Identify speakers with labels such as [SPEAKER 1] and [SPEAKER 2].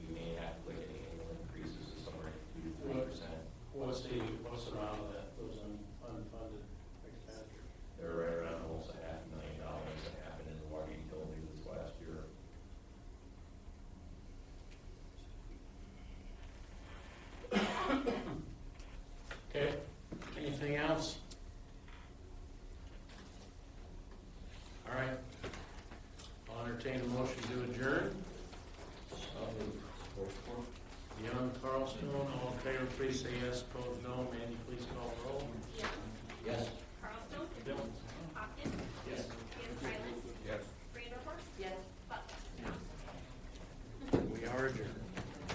[SPEAKER 1] entertain a motion to adjourn. Um, Beyond Carlstone, all in favor, please say yes, opposed no, meeting